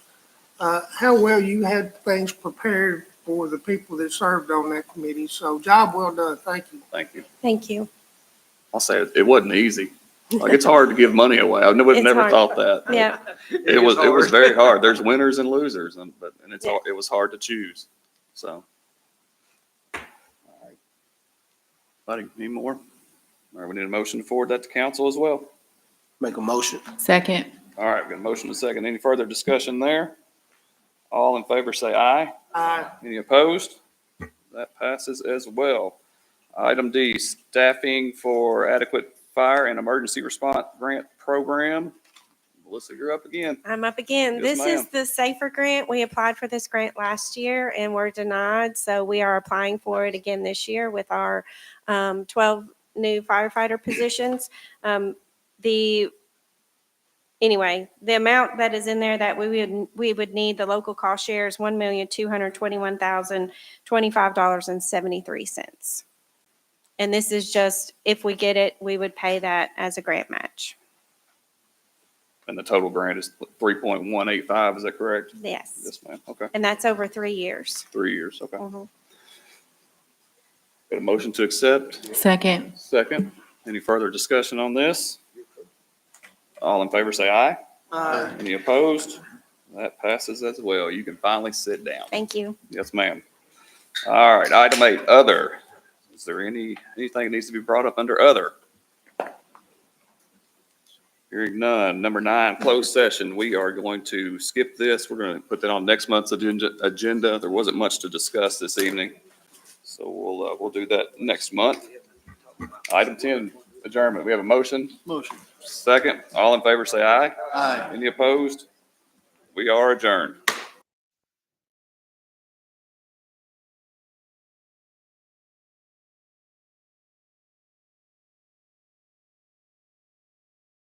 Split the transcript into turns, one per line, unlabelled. uh, how well you had things prepared for the people that served on that committee. So job well done. Thank you.
Thank you.
Thank you.
I'll say it, it wasn't easy. Like, it's hard to give money away. I never,
It's
never
hard.
thought that.
Yeah,
It was, it was very hard. There's winners and losers and, but, and it's, hard- it was hard to choose, so. Buddy, need more? All right, we need a motion to forward that to council as well.
Make a motion.
Second.
All right, we've got a motion and a second. Any further discussion there? All in favor, say aye.
Aye.
Any opposed? That passes as well. Item D, staffing for adequate fire and emergency response grant program. Melissa, you're up again.
I'm up again.
Yes,
This
ma'am.
is the Safer Grant. We applied for this grant last year and were denied, so we are applying for it again this year with our um, 12 new firefighter positions. Um, The, anyway, the amount that is in there that we would, we would need, the local cost share is $1,221,025.73. And this is just, if we get it, we would pay that as a grant match.
And the total grant is three point one eight five, is that correct?
Yes.
Yes, ma'am. Okay,
And that's over three years.
three years, okay.
Mhm.
Got a motion to accept,
Second.
second. Any further discussion on this? All in favor, say aye.
Aye.
Any opposed? That passes as well. You can finally sit down.
Thank you.
Yes, ma'am. All right, item eight, other. Is there any, anything that needs to be brought up under other? Hearing none. Number nine, closed session. We are going to skip this. We're going to put that on next month's agenda, agenda. There wasn't much to discuss this evening. So we'll, uh, we'll do that next month. Item ten, adjournment. We have a motion.
Motion.
Second, all in favor, say aye.
Aye.
Any opposed? We are adjourned.